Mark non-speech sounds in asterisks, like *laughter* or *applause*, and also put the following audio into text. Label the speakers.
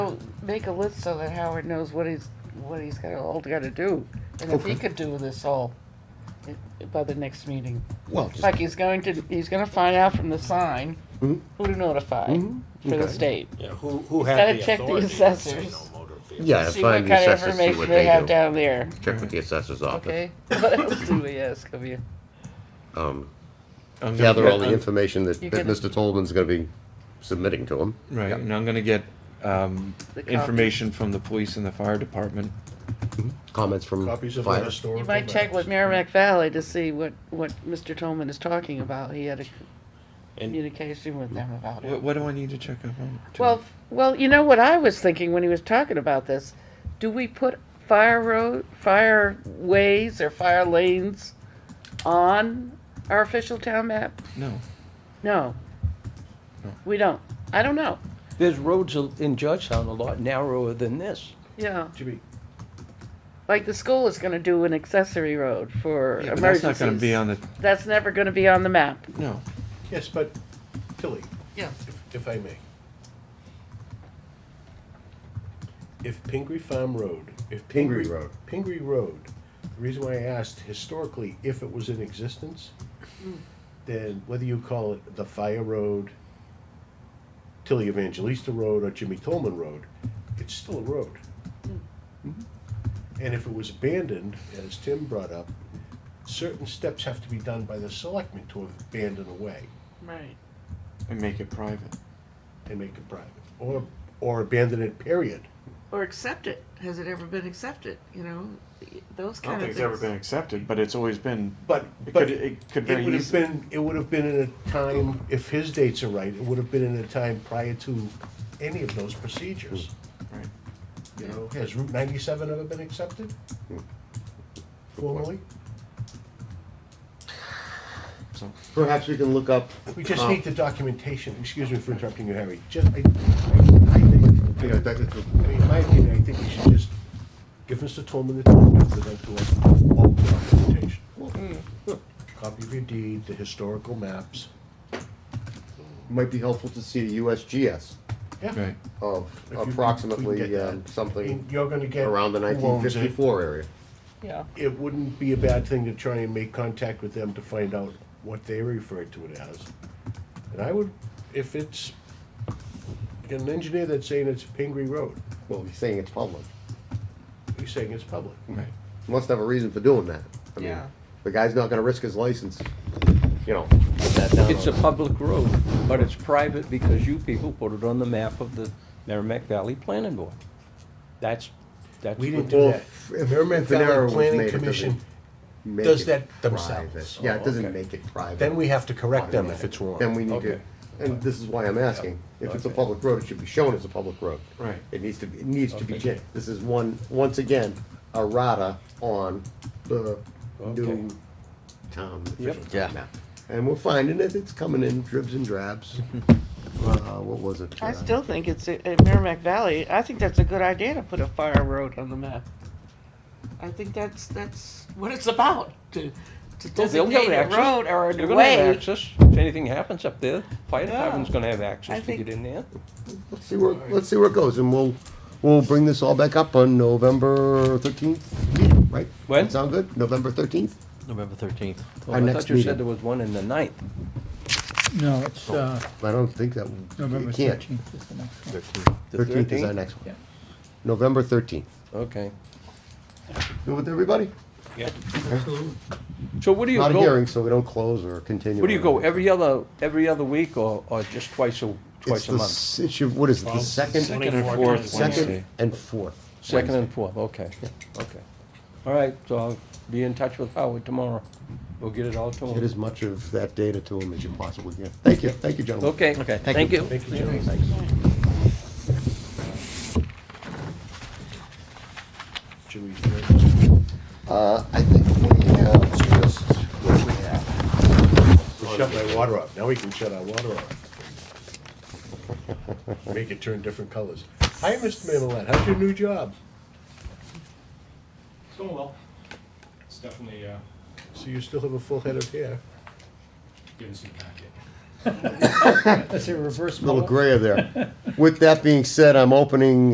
Speaker 1: know, make a list so that Howard knows what he's, what he's got, all gotta do. And if he
Speaker 2: Okay.
Speaker 1: could do this all i- by the next meeting.
Speaker 2: Well, just-
Speaker 1: Like he's going to, he's gonna find out from the sign
Speaker 2: Mhm.
Speaker 1: who to notify
Speaker 2: Mhm,
Speaker 1: for the
Speaker 2: okay.
Speaker 1: state.
Speaker 3: Yeah, who, who
Speaker 1: Gotta
Speaker 3: had the
Speaker 1: check the
Speaker 3: authority to say
Speaker 1: assessors.
Speaker 3: no motor vehicle?
Speaker 2: yeah,
Speaker 1: See
Speaker 2: find
Speaker 1: what
Speaker 2: the
Speaker 1: kind of
Speaker 2: assessors, see what
Speaker 1: information
Speaker 2: they
Speaker 1: they have
Speaker 2: do.
Speaker 1: down there,
Speaker 2: Check with the assessor's office.
Speaker 1: okay? *laughs* What else do we ask of you?
Speaker 2: Um,
Speaker 4: I'm gonna
Speaker 2: gather
Speaker 4: get-
Speaker 2: all the
Speaker 4: I'm-
Speaker 2: information that,
Speaker 1: You
Speaker 2: that
Speaker 1: can-
Speaker 2: Mr. Tolman's gonna be submitting to him.
Speaker 4: Right, and I'm gonna get, um,
Speaker 1: The copy.
Speaker 4: information from the police and the fire department.
Speaker 2: Comments from
Speaker 5: Copies of the
Speaker 2: fire.
Speaker 5: historical.
Speaker 1: You might check with
Speaker 5: records.
Speaker 1: Merrimack Valley to see what, what Mr. Tolman is talking about. He had a
Speaker 3: And
Speaker 1: communication with them about
Speaker 4: What,
Speaker 1: it.
Speaker 4: what do I need to check up on? to-
Speaker 1: Well, f- well, you know what I was thinking when he was talking about this? Do we put fire road, fire ways or fire lanes on our official town map?
Speaker 4: No,
Speaker 1: No.
Speaker 4: No.
Speaker 1: We don't. I don't know.
Speaker 6: There's roads a- in Georgetown a lot narrower than this.
Speaker 1: Yeah,
Speaker 5: Jimmy,
Speaker 1: like the school is gonna do an accessory road for
Speaker 4: yeah, but that's
Speaker 1: emergencies.
Speaker 4: not gonna be on the,
Speaker 1: That's never gonna be on the map.
Speaker 4: no.
Speaker 5: yes, but Tilly,
Speaker 1: Yeah.
Speaker 5: if- if I may. If Pingree Farm Road, if
Speaker 2: Pingree
Speaker 5: Pingree.
Speaker 2: Road.
Speaker 5: Pingree Road, the reason why I asked historically if it was in existence, then whether you call it the Fire Road, Tilly Evangelista Road, or Jimmy Tolman Road, it's still a road. Mm-hmm. And if it was abandoned, as Tim brought up, certain steps have to be done by the selectmen to abandon a way
Speaker 1: Right.
Speaker 4: And make it private.
Speaker 5: and make it private, or, or abandon it, period.
Speaker 1: Or accept it. Has it ever been accepted, you know? Those
Speaker 4: I don't think it's ever been accepted, but it's always been,
Speaker 5: But, but
Speaker 4: it could,
Speaker 5: it
Speaker 4: it could very
Speaker 5: would have
Speaker 4: easily.
Speaker 5: been, it would have been in a time, if his dates are right, it would have been in a time prior to any of those procedures.
Speaker 4: Right.
Speaker 5: You know, has Route ninety-seven ever been accepted?
Speaker 4: Hmm.
Speaker 5: Formally?
Speaker 4: So,
Speaker 2: Perhaps we can look up.
Speaker 5: We just
Speaker 2: um,
Speaker 5: need the documentation, excuse me for interrupting you, Harry, just, I, I
Speaker 2: Yeah,
Speaker 5: think,
Speaker 2: that is good.
Speaker 5: I mean, in my opinion, I think we should just give Mr. Tolman the time to present to us all the documentation.
Speaker 2: hmm.
Speaker 5: Copy of your deed, the historical maps.
Speaker 2: Might be helpful to see a USGS
Speaker 5: Yeah.
Speaker 4: right,
Speaker 2: of
Speaker 5: If you can- we can
Speaker 2: approximately
Speaker 5: get that.
Speaker 2: um,
Speaker 5: I mean,
Speaker 2: something
Speaker 5: You're gonna get.
Speaker 2: around the
Speaker 5: who owns it.
Speaker 2: 1954 area.
Speaker 1: Yeah.
Speaker 5: It wouldn't be a bad thing to try and make contact with them to find out what they refer to it as. And I would, if it's, you got an engineer that's saying it's Pingree Road,
Speaker 2: Well, he's saying it's public.
Speaker 5: he's saying it's public.
Speaker 4: right.
Speaker 2: He Must have a reason for doing that. I mean,
Speaker 1: Yeah.
Speaker 2: the guy's not gonna risk his license, you know. put that down
Speaker 6: It's a
Speaker 2: on-
Speaker 6: public road, but it's private because you people put it on the map of the Merrimack Valley Planning Board. That's, that's.
Speaker 5: We
Speaker 6: what-
Speaker 5: didn't do
Speaker 2: Well,
Speaker 5: that.
Speaker 2: if- if
Speaker 5: Merrimack
Speaker 2: Venero
Speaker 5: Valley
Speaker 2: was made,
Speaker 5: Planning
Speaker 2: it
Speaker 5: Commission,
Speaker 2: doesn't Make
Speaker 5: does
Speaker 2: it
Speaker 5: that
Speaker 2: private.
Speaker 5: themselves.
Speaker 2: Yeah, it
Speaker 6: Oh,
Speaker 2: doesn't
Speaker 6: okay.
Speaker 2: make it private.
Speaker 5: then we have to correct them if it's wrong.
Speaker 2: Then we need to,
Speaker 4: Okay.
Speaker 2: and this is why I'm asking, if it's a
Speaker 6: Okay.
Speaker 2: public road, it should be shown as a public road.
Speaker 4: Right.
Speaker 2: It needs to, be. it needs to be changed. This is one, once again, a rata on the
Speaker 6: Okay.
Speaker 2: new town official
Speaker 6: Yep.
Speaker 2: town map. And we're finding it, it's coming in dribs and
Speaker 6: *laughs*
Speaker 2: drabs. Uh, what was it?
Speaker 1: I
Speaker 2: Uh,
Speaker 1: still think it's, at Merrimack Valley, I think that's a good idea to put a fire road on the map. I think that's, that's what it's about, to, to
Speaker 6: Well, they'll
Speaker 1: designate
Speaker 6: have
Speaker 1: a
Speaker 6: access.
Speaker 1: road or
Speaker 6: They're
Speaker 1: a
Speaker 6: gonna have
Speaker 1: way.
Speaker 6: access. If anything happens up there, fire
Speaker 1: Yeah.
Speaker 6: department's gonna have
Speaker 1: I
Speaker 6: access to
Speaker 1: think-
Speaker 6: get in there.
Speaker 2: Let's see where, let's see where it goes, and we'll, we'll bring this all back up on November thirteenth, right?
Speaker 6: When?
Speaker 2: That Sound good? November thirteenth?
Speaker 7: November 13th.
Speaker 2: Our
Speaker 6: I
Speaker 2: next
Speaker 6: thought you
Speaker 2: meeting.
Speaker 6: said there was one in the ninth.
Speaker 8: No, it's uh,
Speaker 2: I don't think that, we-
Speaker 8: November
Speaker 2: it can't.
Speaker 8: 13th is the next one.
Speaker 6: The
Speaker 2: Thirteenth is our
Speaker 6: 13th?
Speaker 2: next one.
Speaker 8: Yeah.
Speaker 2: November thirteenth.
Speaker 6: Okay.
Speaker 2: Good with everybody?
Speaker 6: So what do you
Speaker 2: Not a
Speaker 6: go,
Speaker 2: hearing, so we don't close or continue.
Speaker 6: what do you
Speaker 2: or
Speaker 6: go,
Speaker 2: anything.
Speaker 6: every other, every other week or, or just twice a,
Speaker 2: It's
Speaker 6: twice a
Speaker 2: the,
Speaker 6: month?
Speaker 2: s- it should- what is it, the
Speaker 3: Well,
Speaker 2: second,
Speaker 4: Second and
Speaker 3: Twenty-fourth.
Speaker 4: fourth Wednesday.
Speaker 2: second and fourth?
Speaker 6: Second and fourth, okay, okay. All right, so I'll be in touch with Howard tomorrow. We'll get it all to
Speaker 2: Get
Speaker 6: him.
Speaker 2: as much of that data to them as you possibly can. Thank you, thank you, gentlemen.
Speaker 6: Okay, thank you.
Speaker 5: Thank you, Jimmy. Jimmy,
Speaker 2: Uh, I think we have just what we have.
Speaker 5: we shut my water off, now we can shut our water off. Make it turn different colors. Hi, Mr. Mamelad, how's your new job?
Speaker 9: It's going well. It's definitely, uh,
Speaker 5: So you still have a full head of hair?
Speaker 9: getting some packet.
Speaker 8: That's a reverse
Speaker 2: Little
Speaker 8: poll.
Speaker 2: grayer there. With that being said, I'm opening